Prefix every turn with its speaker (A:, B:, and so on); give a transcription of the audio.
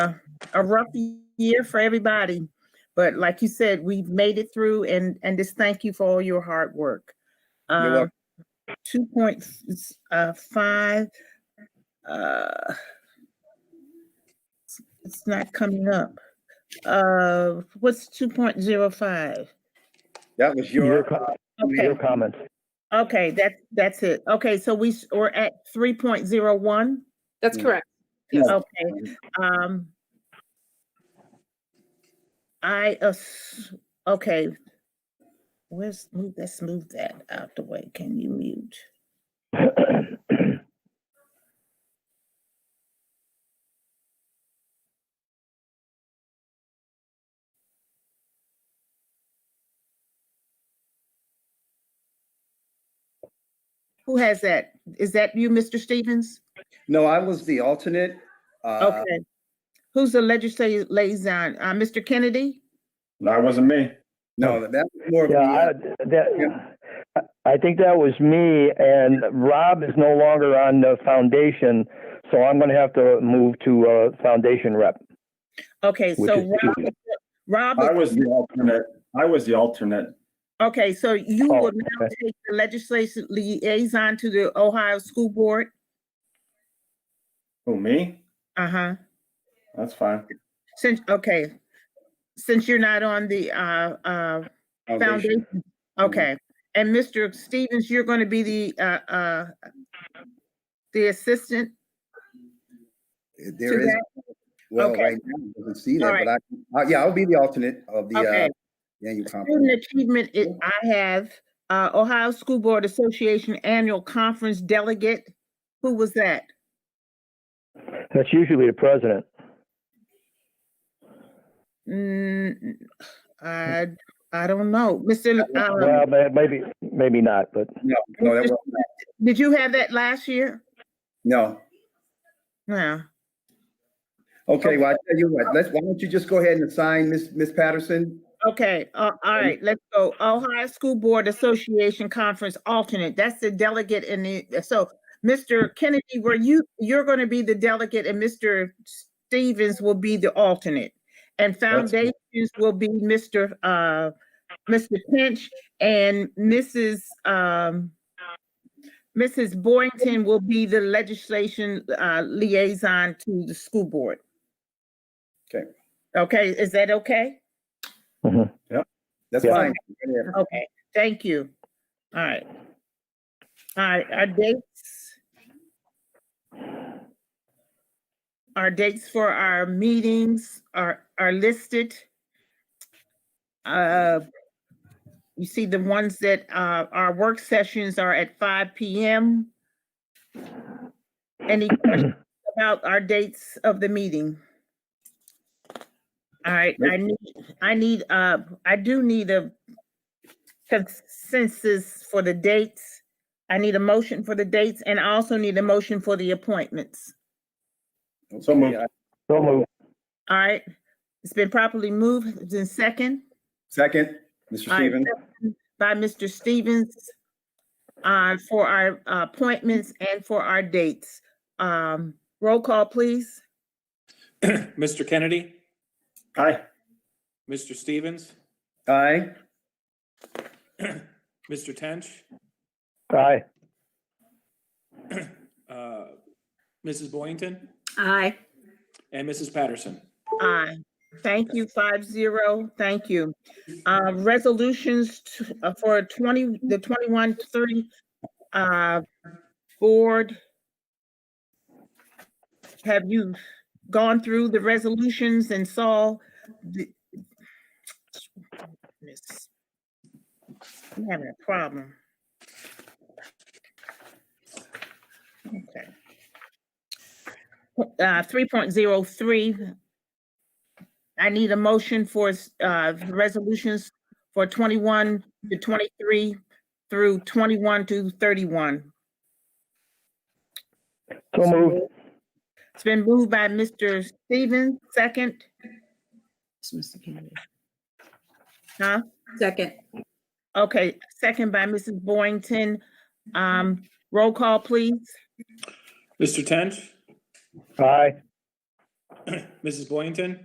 A: a rough year for everybody. But like you said, we've made it through and, and just thank you for all your hard work. Um,
B: You're welcome.
A: Two point five, uh, it's not coming up. Uh, what's two point zero five?
B: That was
C: Your,
B: your, uh,
C: co- your
A: Okay,
C: comments.
A: okay, that's, that's it. Okay, so we, s- we're at three point zero one.
D: That's
B: Mm.
D: correct.
A: Okay, um. I, ass- okay. Where's, move, let's move that out the way. Can you mute? Who has that? Is that you, Mr. Stevens?
B: no, I was the alternate. Uh,
A: Okay. Who's the legislative liaison? Uh, Mr. Kennedy?
E: No, it wasn't me.
B: No, that was more of
C: Yeah, I,
B: the, uh,
C: that, I think that was me and Rob is no longer on the foundation. So I'm going to have to move to, uh, foundation rep.
A: Okay,
C: Which
A: so
C: is
A: Rob,
C: Tuesday.
A: Rob,
E: I was the alternate. I was the alternate.
A: okay, so you
C: Oh,
A: will now
C: okay.
A: take the legislation liaison to the Ohio School Board?
E: Oh, me?
A: Uh-huh.
E: That's fine.
A: Since, okay, since you're not on the, uh, uh,
B: uh, foundation.
A: foundation,
C: Mm-hmm.
A: okay. And Mr. Stevens, you're going to be the, uh, uh, the assistant?
B: There
A: to
B: is,
A: that?
B: well,
A: Okay.
B: right now, I doesn't see
A: All
B: that,
A: right.
B: but I, uh, yeah, I'll be the alternate of the,
A: Okay.
B: uh, annual conference.
A: Student achievement, it, I have, uh, Ohio School Board Association Annual Conference Delegate. Who was that?
C: That's usually the president.
A: Mm, I, I don't know. Mr.
C: Well,
A: Um,
C: ma- maybe, maybe not, but
B: No, no, that was,
A: did you have that last year?
B: no.
A: No.
B: Okay, well, I tell you what, let's, why don't you just go ahead and assign Miss Miss Patterson?
A: Okay, uh, all right, let's go. Ohio School Board Association Conference Alternate. That's the delegate in the, uh, so Mr. Kennedy, were you, you're going to be the delegate and Mr. Stevens will be the alternate. And foundations will be Mr. uh, Mr. Pinch and Mrs. um, Mrs. Boynton will be the legislation uh, liaison to the school board.
B: Okay.
A: Okay, is that okay?
B: That's
C: Yeah.
B: fine.
A: Okay, thank you. All right. All right, our dates. Our dates for our meetings are, are listed. Uh, You see the ones that, uh, our work sessions are at five PM. Any questions about our dates of the meeting? All right, I need, I need, uh, I do need a consensus for the dates. I need a motion for the dates and I also need a motion for the appointments.
E: So moved.
B: Okay, I-
C: don't move.
A: All right, it's been properly moved, it's in second.
B: Second, Mr.
A: All right,
B: Stevens,
A: second By Mr. Stevens, uh, for our uh, appointments and for our dates. Um, roll call, please.
F: Mr. Kennedy,
E: Hi.
F: Mr. Stevens,
B: aye?
F: Mr. Tench,
C: Aye.
F: uh, Mrs. Boynton,
D: Aye.
F: and Mrs. Patterson.
A: Aye. Thank you, five zero. Thank you. Uh, resolutions t- uh, for twenty, the twenty-one, thirty, uh, board. Have you gone through the resolutions and saw the? Miss- I'm having a problem. Okay. Uh, three point zero three, I need a motion for uh, resolutions for 21 to 23 through 21 to 31.
C: So move.
A: It's been moved by Mr. Stevens, second,
D: Mr. Kennedy.
A: huh?
D: Second.
A: Okay, second by Mrs. Boynton. Um, Roll call, please.
F: Mr. Tench,
C: Aye.
F: Mrs. Boynton?